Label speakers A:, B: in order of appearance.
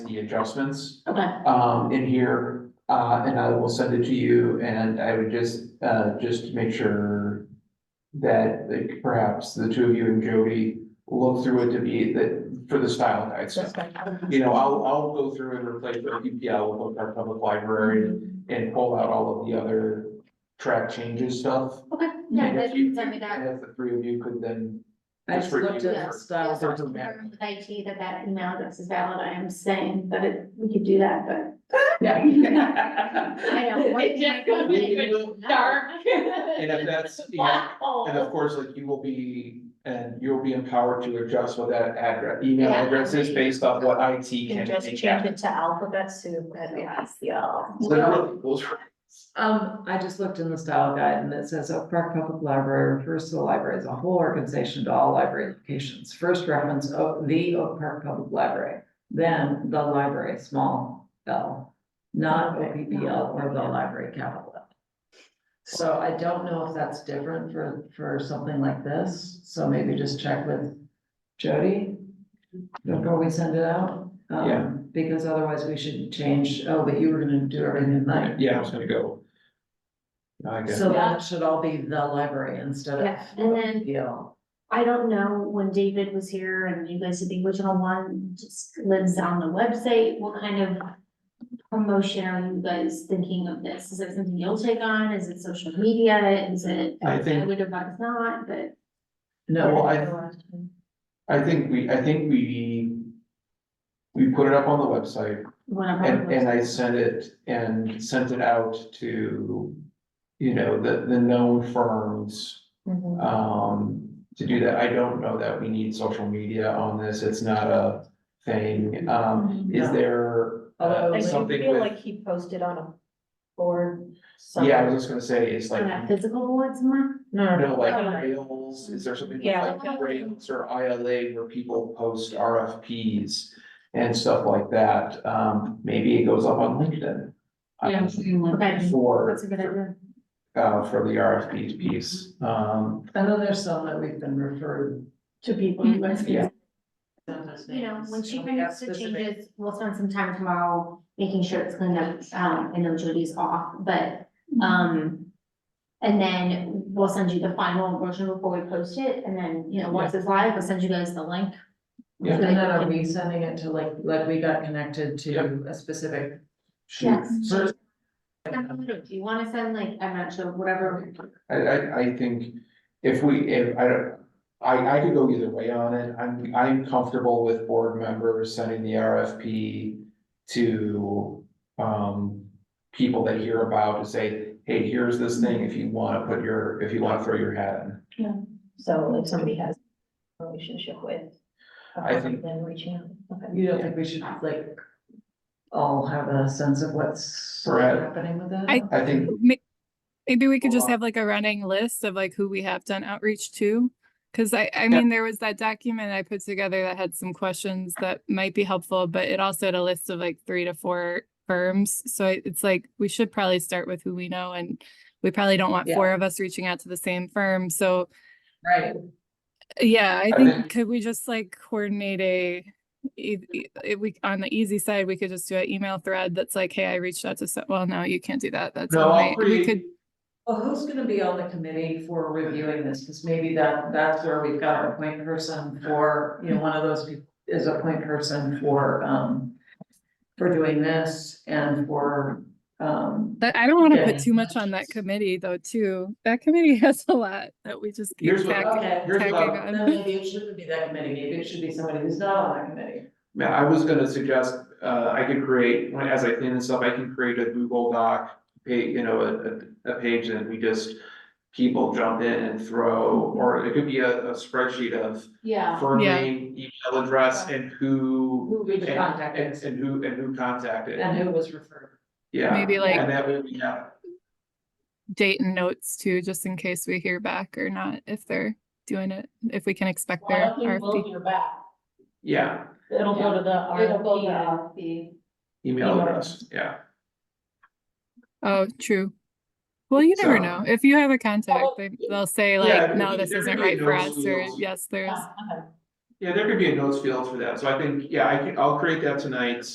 A: the adjustments
B: Okay,
A: um in here, uh and I will send it to you and I would just uh just make sure. That like perhaps the two of you and Jody look through it to be that for the style guide
B: that's
A: stuff.
B: fine.
A: You know, I'll I'll go through and replace our EPL with our public library and pull out all of the other track changes stuff.
B: Okay, yeah,
A: And if
B: that,
A: you-
B: send me that.
A: and if the three of you could then.
C: I just
A: review
C: looked at
A: it
C: that
A: for-
C: style.
B: Also,
A: doesn't matter.
B: confirm with IT that that email address is valid, I am saying that it, we could do that, but I know. one
D: It
B: thing I
D: just
B: don't
D: goes
B: think
D: into
B: is-
D: dark.
A: And if that's, you know,
D: Black hole.
A: And of course, like you will be, and you'll be empowered to adjust what that address, email
B: Yeah.
A: address is based off what IT can
E: can just
A: make
E: change
A: happen.
E: it to alphabet soup at SEL.
A: Literally, those were-
C: Um, I just looked in the style guide and it says Oak Park Public Library refers to the library as a whole organization to all library locations. First reference, O- the Oak Park Public Library, then the library, small L, not O P P L or the library capital L. So I don't know if that's different for, for something like this, so maybe just check with Jody before we send it out. um,
A: Yeah.
C: Because otherwise we should change, oh, but you were gonna do everything tonight.
A: Yeah, I was gonna go. I guess,
C: So then it should all be the library instead of.
B: Yeah, and then-
C: Yale.
B: I don't know when David was here and you guys did the original one, just lives on the website, what kind of promotion are you guys thinking of this? Is it something you'll take on? Is it social media? Is it?
A: I think-
B: would have thought it's not, but.
A: Well,
C: No,
A: I- I think we, I think we. We put it up on the website
B: whatever.
A: and, and I sent it and sent it out to. You know, the, the known firms,
E: Mm-hmm.
A: um, to do that. I don't know that we need social media on this. It's not a thing. Um, Is
C: No.
A: there
C: Although,
A: uh,
C: like,
E: I do
A: something
E: feel
A: with,
E: Mm-hmm. Oh, like he posted on a board.
A: yeah, I
E: somewhere.
A: was just gonna say, it's like,
B: Like a physical board somewhere?
E: No, no,
A: no, like
E: Alright.
A: rails, is there something with
E: Yeah,
A: like
B: like-
A: rails or ILA where people post RFPs? And stuff like that, um, maybe it goes up on LinkedIn. um,
B: Okay,
A: For,
B: that's a good idea.
A: uh, for the RFP piece, um,
C: I know there's some that we've been referred.
E: to people.
B: Mhm.
E: but-
A: Yeah.
B: You know, when she brings the changes, we'll spend some time tomorrow making sure it's cleaned up, um, I know Jody's off, but,
D: Mm-hmm.
B: um. And then we'll send you the final version before we post it, and then, you know, once it's live, we'll send you guys the link.
A: Yeah.
C: And then are we sending it to like, like we got connected to a specific.
A: shoot.
B: Yes.
A: So
B: Do you wanna send like, I'm not sure, whatever,
A: I, I, I think if we, if, I don't, I, I could go either way on it, I'm, I'm comfortable with board members sending the RFP to, um, people that hear about to say, hey, here's this thing, if you wanna put your, if you wanna throw your hat in.
E: So if somebody has a relationship with. a
A: I think-
E: firm, Then reaching out, okay.
C: You don't think we should like all have a sense of what's
A: Right.
C: happening with that?
F: I-
A: I think,
F: May- Maybe we could just
A: Well,
F: have like a running list of like who we have done outreach to. Cause I, I mean, there was that document I put together that had some questions that might be helpful, but it also had a list of like three to four firms. So I- it's like, we should probably start with who we know and we probably don't want
C: Yeah.
F: four of us reaching out to the same firm. So
C: Right,
F: yeah, I
A: I
F: think,
A: think-
F: could we just like coordinate a, e- e- if we, on the easy side, we could just do an email thread that's like, hey, I reached out to, so, well, no, you can't do that. That's,
A: no, I'll
F: online. we could
A: create,
C: well, who's gonna be on the committee for reviewing this? Cause maybe that, that's where we've got our point person for, you know, one of those people is a point person for, um, for doing this and for, um,
F: But I don't want to
C: Yeah.
F: put too much on that committee though, too. That committee has a lot that we just keep
A: Here's what-
F: tack-
C: Okay.
A: here's what
F: tacking
A: I-
F: on.
C: Then maybe it shouldn't be that committee, maybe it should be somebody who's not on that committee.
A: man, I was gonna suggest, uh, I could create, when- as I clean this up, I can create a Google Doc, pay, you know, a- a, a page and we just people jump in and throw, or it could be a, a spreadsheet of
D: Yeah.
A: firm
F: Yeah.
A: name, email address, and who,
C: Who we
A: and,
C: just
A: and,
C: contacted
A: and who, and who contacted,
C: and who was referred.
A: yeah.
F: Maybe, like-
A: And that way we have,
F: Date and notes too, just in case we hear back or not, if they're doing it, if we can expect
D: Well, I
F: their
D: don't think we'll
F: RFP.
D: hear back.
A: yeah,
E: It'll go to the
D: It'll go to
E: RFP.
D: RFP.
A: email
E: Email.
A: address, yeah.
F: Oh, true. Well, you never
A: So- Oh,
F: know. If you have a contact, they, they'll say like,
A: Yeah,
F: no,
A: if
F: this isn't
A: everybody
F: right for
A: knows
F: us,
A: who
F: or
A: knows.
F: yes, there's.
D: Yeah, okay.
A: Yeah, there could be a notes field for that, so I think, yeah, I can, I'll create that tonight,